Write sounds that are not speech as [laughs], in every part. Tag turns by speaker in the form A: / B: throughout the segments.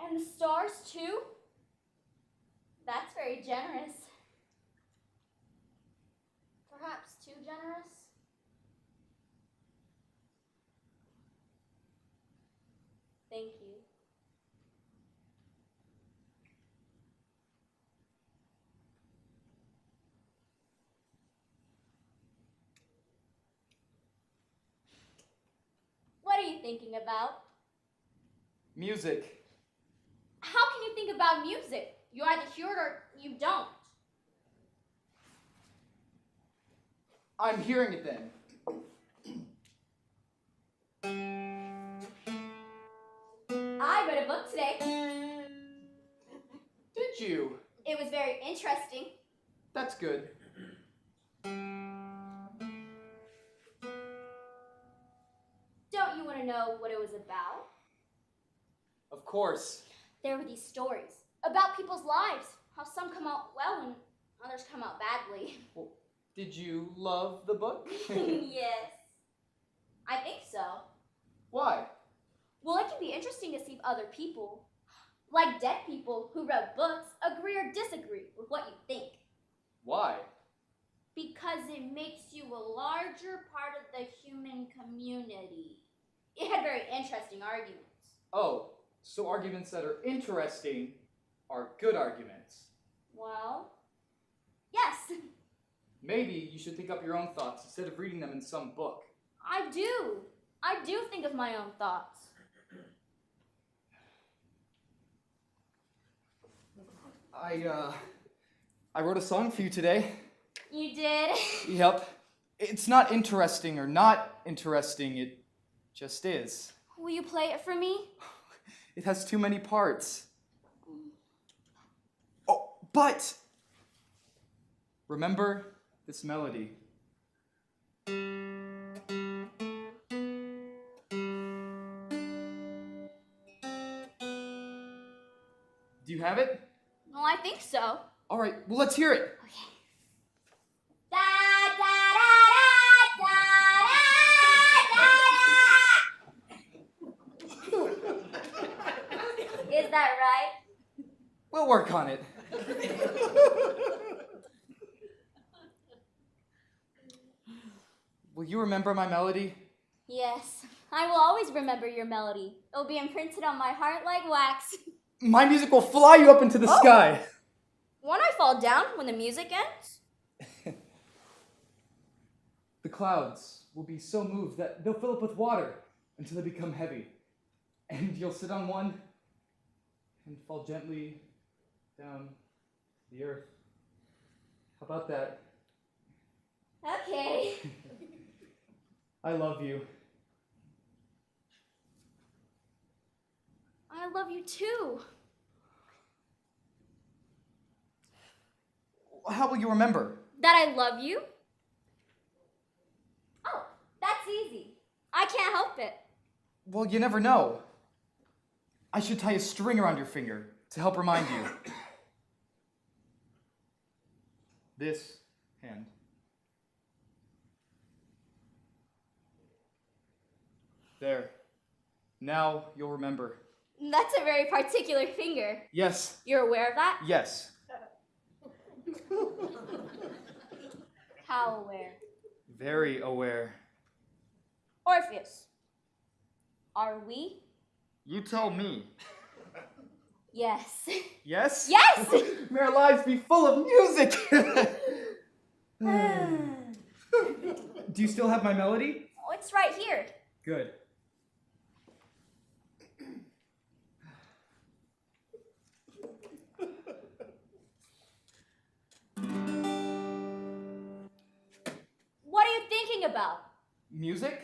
A: and the stars too? That's very generous. Perhaps too generous? Thank you. What are you thinking about?
B: Music.
A: How can you think about music? You either hear it or you don't.
B: I'm hearing it then.
A: I read a book today.
B: Did you?
A: It was very interesting.
B: That's good.
A: Don't you want to know what it was about?
B: Of course.
A: There were these stories about people's lives, how some come out well and others come out badly. [laughs]
B: Did you love the book?
A: yes. I think so.
B: Why?
A: Well, it can be interesting to see other people, like dead people who wrote books, agree or disagree with what you think.
B: Why?
A: Because it makes you a larger part of the human community. It had very interesting arguments.
B: Oh, so arguments that are interesting are good arguments.
A: Well, yes,
B: Maybe you should think up your own thoughts instead of reading them in some book.
A: I do. I do think of my own thoughts.
B: I uh I wrote a song for you today.
A: You did? [laughs]
B: Yep. It's not interesting or not interesting, it just is.
A: Will you play it for me?
B: It has too many parts. Oh, but remember this melody. Do you have it?
A: Well, I think so.
B: All right, well, let's hear it.
A: Da da da da da da da da. [laughs] Is that right?
B: We'll work on it. [laughs] Will you remember my melody?
A: Yes. I will always remember your melody. It will be imprinted on my heart like wax. [laughs]
B: My music will fly you up into the
A: Oh.
B: sky.
A: Won't I fall down when the music ends?
B: The clouds will be so moved that they'll fill up with water until they become heavy. And you'll sit on one and fall gently down to the earth. How about that?
A: [laughs] Okay.
B: I love you.
A: I love you too.
B: How will you remember?
A: That I love you? Oh, that's easy. I can't help it.
B: Well, you never know. I should tie a string around your finger to help remind you. [coughs] this hand. There. Now you'll remember.
A: That's a very particular finger.
B: Yes,
A: You're aware of that?
B: yes.
A: How aware?
B: Very aware.
A: Orpheus. Are we?
B: You tell me.
A: Yes.
B: Yes? [laughs]
A: Yes!
B: May our lives be full of music! [laughs]
A: oh,
B: Do you still have my melody?
A: [sighs] it's right here.
B: Good.
A: What are you thinking about? [laughs]
B: Music?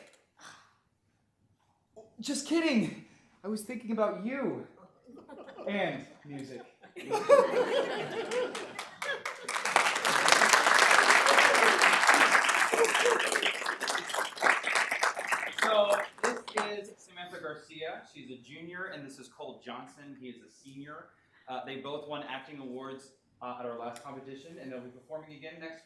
B: Just kidding! I was thinking about you. And music.
C: So this is Samantha Garcia. She's a junior, and this is Cole Johnson. He is a senior. Uh, they both won acting awards uh, at our last competition, and they'll be performing again next